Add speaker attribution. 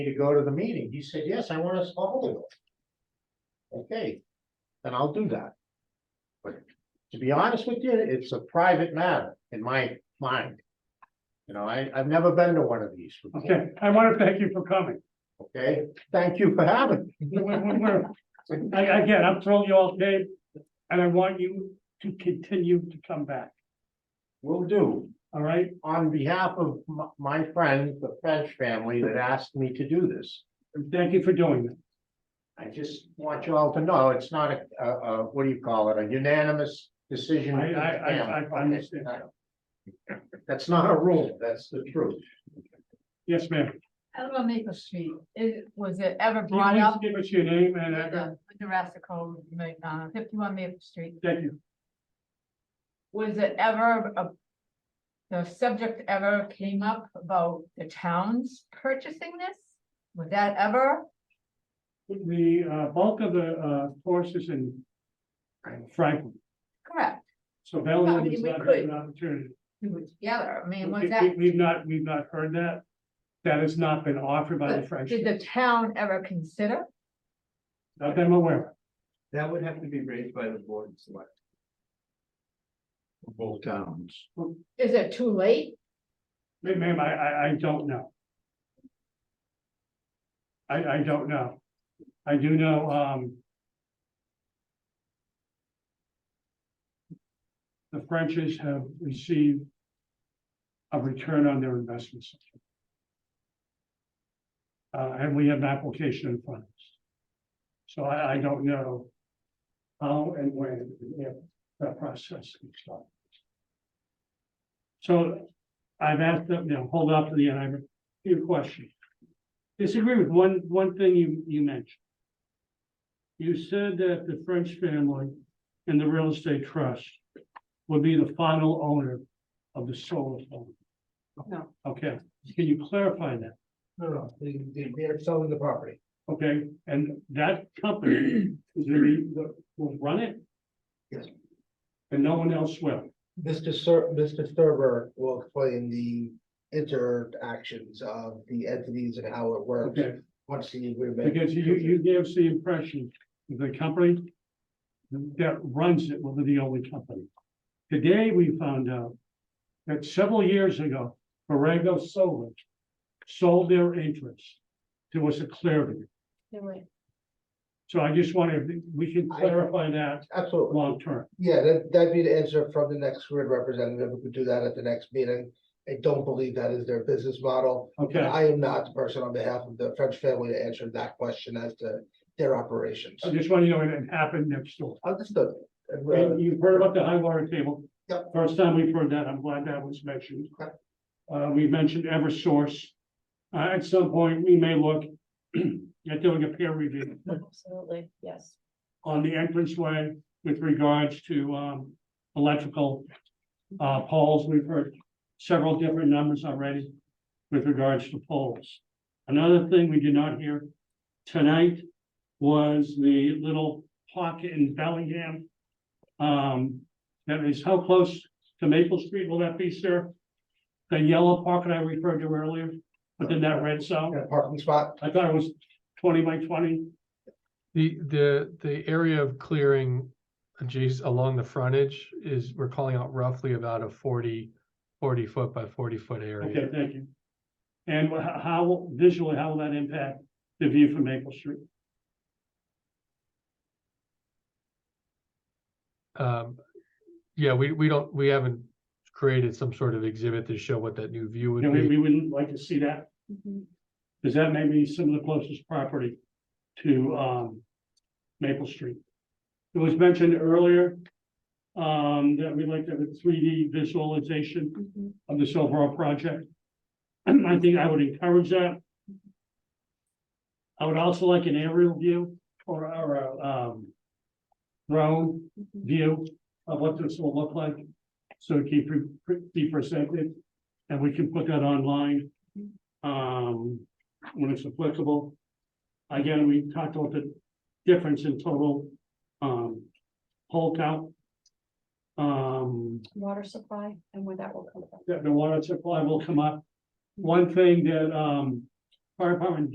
Speaker 1: to go to the meeting? He said, yes, I want us all to go. Okay, then I'll do that. But to be honest with you, it's a private matter in my mind. You know, I, I've never been to one of these, before,
Speaker 2: Okay, I want to thank you for coming.
Speaker 1: okay? Thank you for having me.
Speaker 2: We're- we're- we're- I- Again, I'm throwing you all day, and I want you to continue to come back,
Speaker 1: Will do.
Speaker 2: all right?
Speaker 1: On behalf of my, my friend, the French family that asked me to do this,
Speaker 2: And Thank you for doing that.
Speaker 1: I just want you all to know, it's not a, a, a, what do you call it, a unanimous decision.
Speaker 2: I- I- I- I understand.
Speaker 1: That's not a rule, that's the truth.
Speaker 2: Yes, ma'am.
Speaker 3: Elma Maple Street, it, was it ever
Speaker 2: Can you
Speaker 3: brought
Speaker 2: please
Speaker 3: up?
Speaker 2: Give us your name
Speaker 3: in
Speaker 2: and, uh,
Speaker 3: The Jurassic Home, uh, fifty-one Maple Street,
Speaker 2: thank you.
Speaker 3: was it ever, uh, the subject ever came up about the towns purchasing this? Was that ever?
Speaker 2: The uh, bulk of the uh, forces in Franklin,
Speaker 3: Correct,
Speaker 2: so
Speaker 3: Well, I
Speaker 2: Bellwood
Speaker 3: mean,
Speaker 2: is
Speaker 3: we
Speaker 2: not
Speaker 3: could.
Speaker 2: an opportunity.
Speaker 3: we were together, I mean, was
Speaker 2: We-
Speaker 3: that,
Speaker 2: we- We've not, we've not heard that. That has not been offered by the
Speaker 3: But
Speaker 2: French,
Speaker 3: did the town ever consider?
Speaker 2: not that I'm aware of.
Speaker 4: That would have to be raised by the board and select. Both towns.
Speaker 3: Is it too late?
Speaker 2: Ma- Ma'am, I, I, I don't know. I, I don't know. I do know, um. The Frenches have received. A return on their investments. Uh, and we have an application in front of us. So I, I don't know. How and when, if that process can start. So I've asked them, you know, hold off to the end, I have a few questions. Disagree with one, one thing you, you mentioned. You said that the French family and the real estate trust would be the final owner of the solar farm.
Speaker 3: No.
Speaker 2: Okay, can you clarify that?
Speaker 4: No, no, they, they, they're selling the property.
Speaker 2: Okay, and that company is gonna be, the- will run it?
Speaker 4: Yes.
Speaker 2: And no one else will?
Speaker 4: Mr. Ser, Mr. Server will explain the interactions of the entities and how it works.
Speaker 2: Okay,
Speaker 4: Once the agreement.
Speaker 2: Because you, you gave us the impression that the company that runs it will be the only company. Today, we found out that several years ago, Borrego Solar sold their interest to us at Clearview. So I just wanted, we can clarify that
Speaker 4: Absolutely,
Speaker 2: long term.
Speaker 4: yeah, that, that'd be the answer from the next grid representative, we could do that at the next meeting. I don't believe that is their business model, and
Speaker 2: Okay,
Speaker 4: I am not the person on behalf of the French family to answer that question as to their operations.
Speaker 2: I just want you to know it happened next door.
Speaker 4: Understood. And, uh,
Speaker 2: And you've heard about the high water table.
Speaker 4: Yep.
Speaker 2: First time we've heard that, I'm glad that was mentioned.
Speaker 4: Correct.
Speaker 2: Uh, we mentioned Eversource. Uh, at some point, we may look at doing a peer review
Speaker 3: Absolutely, yes.
Speaker 2: on the entranceway with regards to, um, electrical, uh, poles. We've heard several different numbers already with regards to poles. Another thing we did not hear tonight was the little pocket in Bellingham. Um, that is, how close to Maple Street will that be, sir? The yellow pocket I referred to earlier, but then that red zone,
Speaker 4: a parking spot,
Speaker 2: I thought it was twenty by twenty.
Speaker 5: The, the, the area of clearing adjacent along the frontage is, we're calling out roughly about a 40 40 foot by forty foot
Speaker 2: Okay,
Speaker 5: area.
Speaker 2: thank you. And wha- how visually, how will that impact the view from Maple Street?
Speaker 5: Um, yeah, we, we don't, we haven't created some sort of exhibit to show what that new view
Speaker 2: You know,
Speaker 5: would
Speaker 2: we,
Speaker 5: be.
Speaker 2: we wouldn't like to see that, because that may be some of the closest property to, um, Maple Street. It was mentioned earlier, um, that we like to have a three D visualization of this overall project. I think I would encourage that. I would also like an aerial view or, or, a, um, drone view of what this will look like. So it can pre- pre- be presented and we can put that online, um, when it's applicable. Again, we talked about the difference in total, um, pole count. Um,
Speaker 6: water supply and where that will come from.
Speaker 2: that the water supply will come up. One thing that, um, fire department